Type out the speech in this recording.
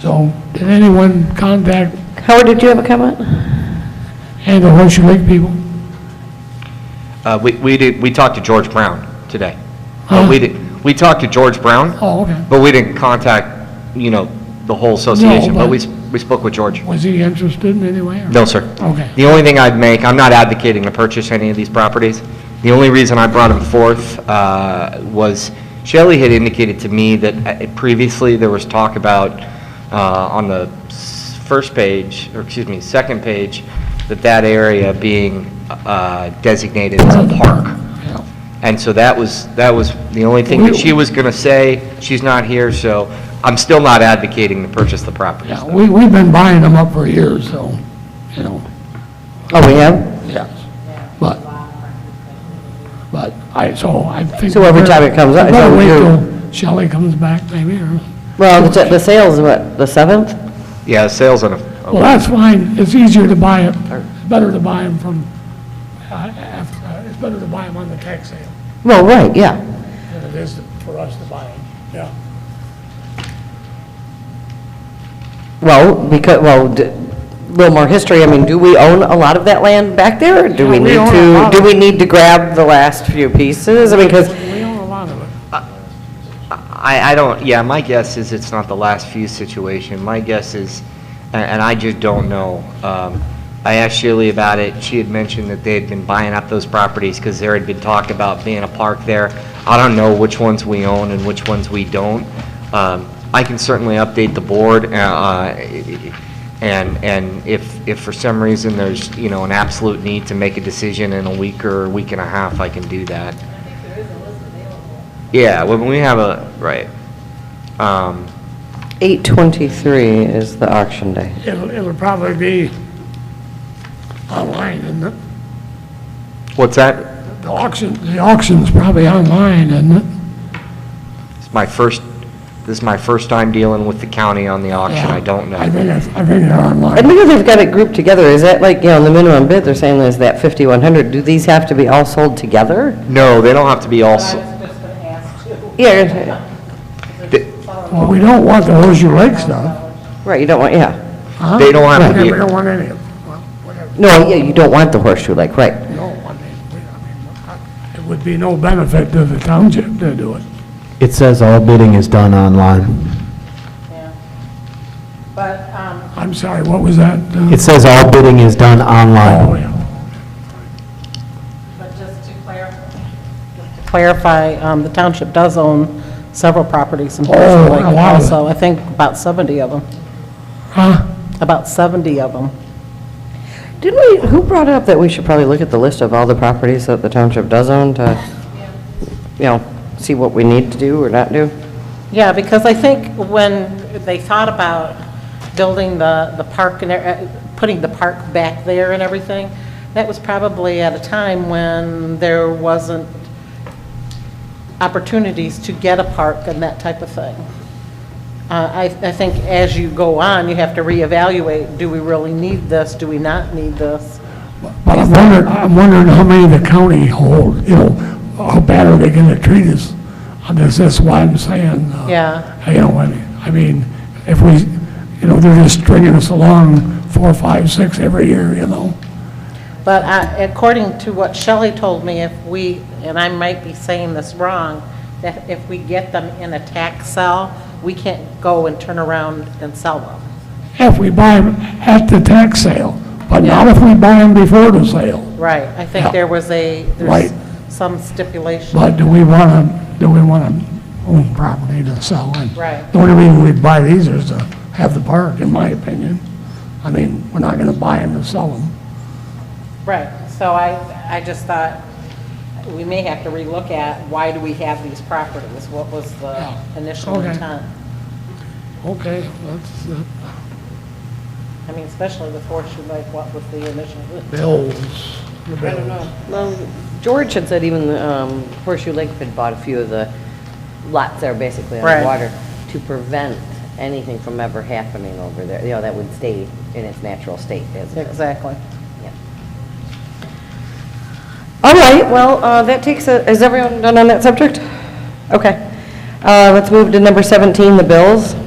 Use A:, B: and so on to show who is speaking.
A: So, did anyone contact
B: Howard, did you have a comment?
A: any of the Horseshoe Lake people?
C: Uh, We we did, we talked to George Brown today.
A: Huh?
C: But we did, we talked to George Brown,
A: Oh, okay.
C: but we didn't contact, you know, the whole association, but we
A: but-
C: s- we spoke with George.
A: Was he interested in any way? or-
C: No, sir.
A: Okay.
C: The only thing I'd make, I'm not advocating to purchase any of these properties. The only reason I brought them forth uh, was Shelley had indicated to me that uh, previously there was talk about, uh, on the s- first page, or excuse me, second page, that that area being uh, designated as a park.
A: Yeah.
C: And so that was, that was the only thing that she was going to say. She's not here, so I'm still not advocating to purchase the properties.
A: Yeah, we, we've been buying them up for years, so, you know,
B: Oh, we have?
A: yes. But, but I, so I think.
B: So every time it comes up,
A: We
B: it's
A: better wait
B: overdue.
A: till Shelley comes back maybe, or,
B: Well, the the sale's what, the 7th?
C: Yeah, sales on a,
A: well, that's fine. It's easier to buy it, it's better to buy them from, uh, after, it's better to buy them on the tax sale
B: Well, right, yeah.
A: than it is for us to buy them, yeah.
B: Well, because, well, d- little more history, I mean, do we own a lot of that land back there? or Do we
A: Yeah, we
B: need
A: own a
B: to,
A: lot
B: do
A: of
B: we need to grab the last few pieces? I mean, because,
A: We own a lot of it.
C: I, I don't, yeah, my guess is it's not the last few situation. My guess is, and and I just don't know. Um, I asked Shirley about it. She had mentioned that they had been buying up those properties because there had been talk about being a park there. I don't know which ones we own and which ones we don't. Um, I can certainly update the board, uh, uh, And, and if, if for some reason there's, you know, an absolute need to make a decision in a week or a week and a half, I can do that. Yeah, when we have a, right. Um,
B: 8:23 is the auction day.
A: It'll, it'll probably be online, isn't it?
C: What's that?
A: The auction, the auction's probably online, isn't it?
C: It's my first, this is my first time dealing with the county on the auction, I don't
A: I
C: know.
A: think it's, I think they're
B: I
A: online.
B: know they've got it grouped together, is that like, you know, the minimum bid, they're saying is that 5,100, do these have to be all sold together?
C: No, they don't have to be all, s-
B: Yeah,
C: they
A: Well, we don't want the Horseshoe Lake stuff.
B: right, you don't want, yeah.
A: huh?
C: They don't have to
A: Yeah,
C: be-
A: We don't want any of it. Well, whatever,
B: No, yeah, you don't want the horseshoe lake, right.
A: no, I mean, we- I mean, it would be no benefit to the township to do it.
D: It says all bidding is done online.
E: Yeah. But, um,
A: I'm sorry, what was that? uh,
D: It says all bidding is done
A: Oh,
D: online.
A: yeah.
E: but just to clarify. Clarify, um, the township does own several properties in
A: Oh,
E: Horseshoe Lake
A: a lot of it.
E: also. I think about 70 of them,
A: Huh?
E: about 70 of them.
B: Didn't we, who brought up that we should probably look at the list of all the properties that the township does own to, you know, see what we need to do or not do?
E: Yeah, because I think when they thought about building the, the park and, uh, putting the park back there and everything, that was probably at a time when there wasn't opportunities to get a park and that type of thing. Uh, I, I think as you go on, you have to reevaluate, do we really need this? Do we not need this?
A: But I'm wondering, I'm wondering how many the county hold, you know, how bad are they gonna treat us? And That's, that's why I'm saying. uh,
E: Yeah.
A: You know, I mean, I mean, if we, you know, they're just stringing us along four, five, six every year, you know?
E: But I- according to what Shelley told me, if we, and I might be saying this wrong, that if we get them in a tax sale, we can't go and turn around and sell them.
A: If we buy them at the tax sale, but not if we buy them before the sale.
E: Right. I think there was a,
A: Right.
E: there's some stipulation.
A: But do we wanna, do we wanna own property to sell and?
E: Right.
A: The only reason we'd buy these is to have the park, in my opinion. I mean, we're not gonna buy them to sell them.
E: Right, so I, I just thought, we may have to relook at, why do we have these properties? What was the initial
A: Okay.
E: intent?
A: Okay, that's, uh,
E: I mean, especially with Horseshoe Lake, what was the initial?
A: bills.
E: I don't know.
B: Well, George had said even um, Horseshoe Lake had bought a few of the lots there basically on
E: Right.
B: the water to prevent anything from ever happening over there, you know, that would stay in its natural state as it is.
E: Exactly.
B: All right, well, uh, that takes, a- is everyone done on that subject? Okay. Uh, Let's move to number 17, the bills.